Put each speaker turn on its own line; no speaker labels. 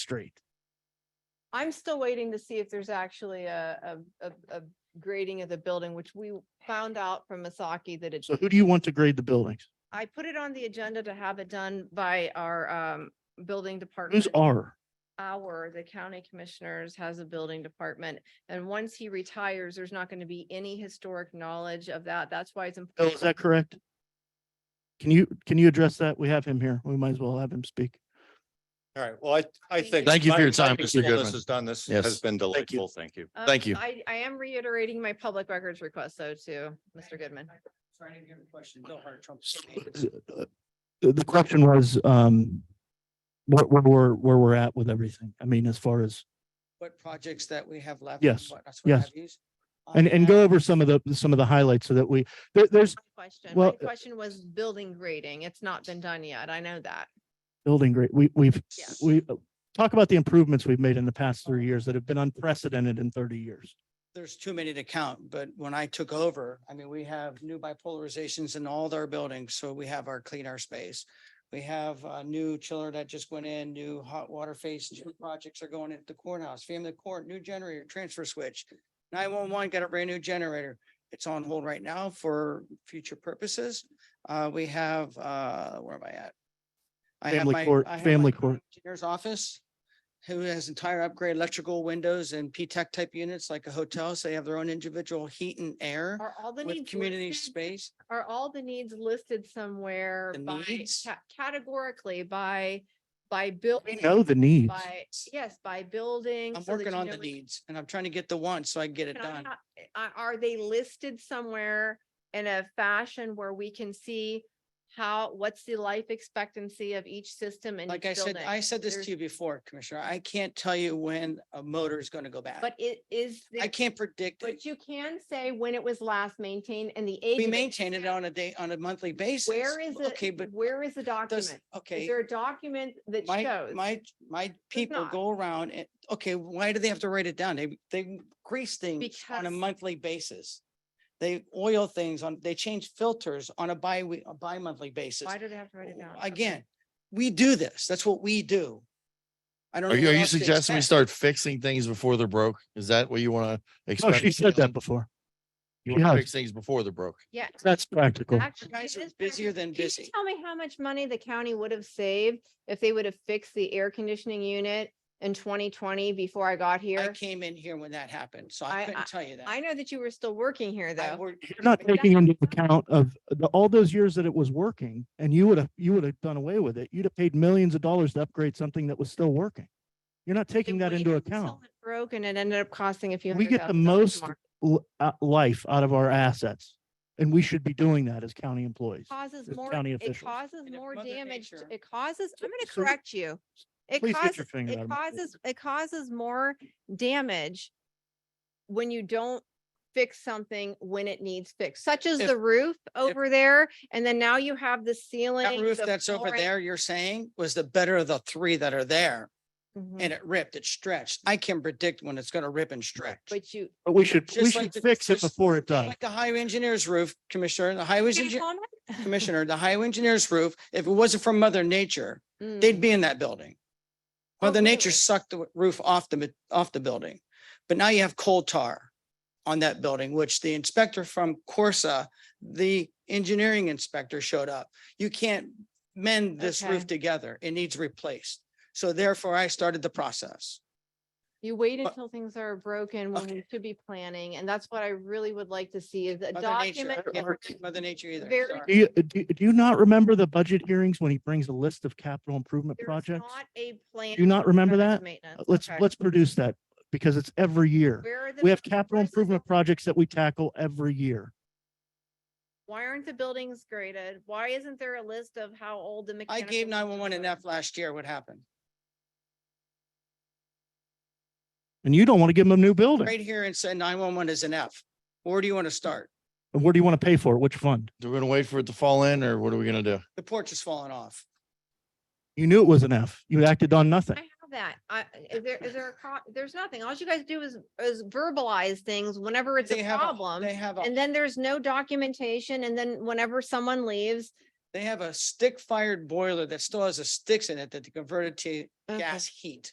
straight.
I'm still waiting to see if there's actually a, a, a, a grading of the building, which we found out from Masaki that it's,
So who do you want to grade the buildings?
I put it on the agenda to have it done by our, um, building department.
Who's R?
Our, the county commissioners has a building department, and once he retires, there's not gonna be any historic knowledge of that. That's why it's
Oh, is
important.
that correct? Can you, can you address that? We have him here. We might as well have him speak.
All right, well, I, I
Thank you.
think.
Thank you for
my-
your
I
time,
think
Mr.
all This
Goodman.
has done, this
Yes.
has been
Thank you.
delightful, thank you.
Um,
thank you.
I, I am reiterating my public records request though to Mr. Goodman.
Sorry, I didn't hear the question. No hard
So,
trumpets.
uh, The the question was, um, where, where, we're- where we're at with everything. I mean, as far as,
What projects that we have left?
Yes,
what- that's what
yes.
I've used. I
and, and go
have-
over some of the, some of the highlights so that we, there, there's
My Question, my
Well, uh,
question was building grading. It's not been done yet. I know that.
building great. We, we've,
Yeah.
we, talk about the improvements we've made in the past three years that have been unprecedented in thirty years.
There's too many to count, but when I took over, I mean, we have new bipolarizations in all our buildings, so we have our clean our space. We have a new chiller that just went in, new hot water face, new projects are going at the courthouse, family court, new generator, transfer switch. Nine-one-one got a brand new generator. It's on hold right now for future purposes. Uh, we have, uh, where am I at? I have
Family
my-
court-
I have my
family court.
Engineer's office, who has entire upgrade electrical windows and P-Tech type units like a hotel, so they have their own individual heat and air
Are all the
with
needs
community
listed?
space.
Are all the needs listed somewhere
The
by,
needs?
ca- categorically by, by building?
We know the needs.
By, yes, by building.
I'm
so that
working
you
on
know
the
which-
needs and I'm trying to get the one so I can get it
Can I
done.
ha- Are, are they listed somewhere in a fashion where we can see how, what's the life expectancy of each system and each
Like I said,
building?
I said this
There's-
to you before, Commissioner, I can't tell you when a motor is going to go bad.
But it is, the-
I can't predict. it.
but you can say when it was last maintained and the age.
We
of it.
maintain it on a day, on a monthly basis.
Where is
Okay, but
it? Where is the
does,
document? Is
okay.
there a document that
My,
shows?
my, my people
not.
go around and, okay, why do they have to write it down? They, they grease things on a
Because-
monthly basis. They oil things on, they change filters on a bi, a bi-monthly basis.
Why do they have to write it down? Okay.
Oh, Again, we do this. That's what we do. I don't.
Are
know
you, are
what
you
else to
suggesting we start
expect.
fixing things before they're broke? Is that what you want to
Oh,
expect?
she said that before.
You want
Yeah.
to fix things before they're broke.
Yeah.
That's practical.
actually, it
guys are
is
busier
practical. Can
than
you
busy.
Tell me how much money the county would have saved if they would have fixed the air conditioning unit in twenty twenty before I got
I
here.
came in here when that happened, so
I-
I couldn't tell you that.
I know that you were still working here
I
though.
worked-
You're not
But
taking
that's-
into account of the, all those years that it was working and you would have, you would have done away with it. You'd have paid millions of dollars to upgrade something that was still working. You're not taking that into account.
Broken and ended up costing a few.
We
hundred
get the
thousand dollars
most
more.
l- uh, life out of our assets and we should be doing that as county employees.
Causes
as
more,
county
it
officials.
causes
And if
more
Mother
damage. to-
Nature-
It causes, I'm gonna
So-
correct you. It
Please get
causes,
your finger out
it
of my face.
causes, it causes more damage when you don't fix something when it needs fixed, such as
If-
the roof over there. And then now you have the ceiling.
That roof
the
that's over
flooring.
there, you're saying, was the better of the three that are there,
Mhm.
and it ripped, it stretched. I can predict when it's gonna rip and stretch.
But you.
But we should, we
Just like
should
the-
fix it
just
before it does.
Like the highway engineer's roof, Commissioner, the highway
Can you
engineer,
comment?
Commissioner, the highway engineer's roof, if it wasn't from Mother Nature, they'd
Mm.
be in that building.
Oh,
Mother Nature
really?
sucked the roof off the, ma- off the building. But now you have coal tar on that building, which the inspector from Corsa, the engineering inspector showed up. You can't mend this
Okay.
roof together. It needs replaced. So therefore I started the process.
You wait
But-
until things are broken when
Okay.
we should be planning. And that's what I really would like to see is a
Mother Nature,
document.
I can't
where
forget Mother Nature either.
very
Do
sorry.
you, do, do you not remember the budget hearings when he brings a list of capital improvement
there's
projects?
Not a plan.
Do you not
for
remember
preventive
that?
maintenance.
Uh, Let's,
Okay.
let's produce that because it's every year.
Where are the
We have
buil-
capital
where's the
improvement
buil-
projects that we tackle every year.
Why aren't the buildings graded? Why isn't there a list of how old the
I
mechanical?
gave
buildings
nine one one an
are?
F last year. What happened?
And you don't want to give them a new building.
Right here and said nine one one is an F. Where do you want to start?
And where do you want to pay for it? Which fund?
Do we going to wait for it to fall in or what are we going to do?
The porch is falling off.
You knew it was an F. You acted on nothing.
I have that. I, is there, is there a, co- there's nothing. All you guys do is, is verbalize things whenever it's
They
a
have, a-
problem.
they have, a-
And then there's no documentation. And then whenever someone leaves.
they have a stick fired boiler that still has the sticks in it that they converted to
okay.
gas heat.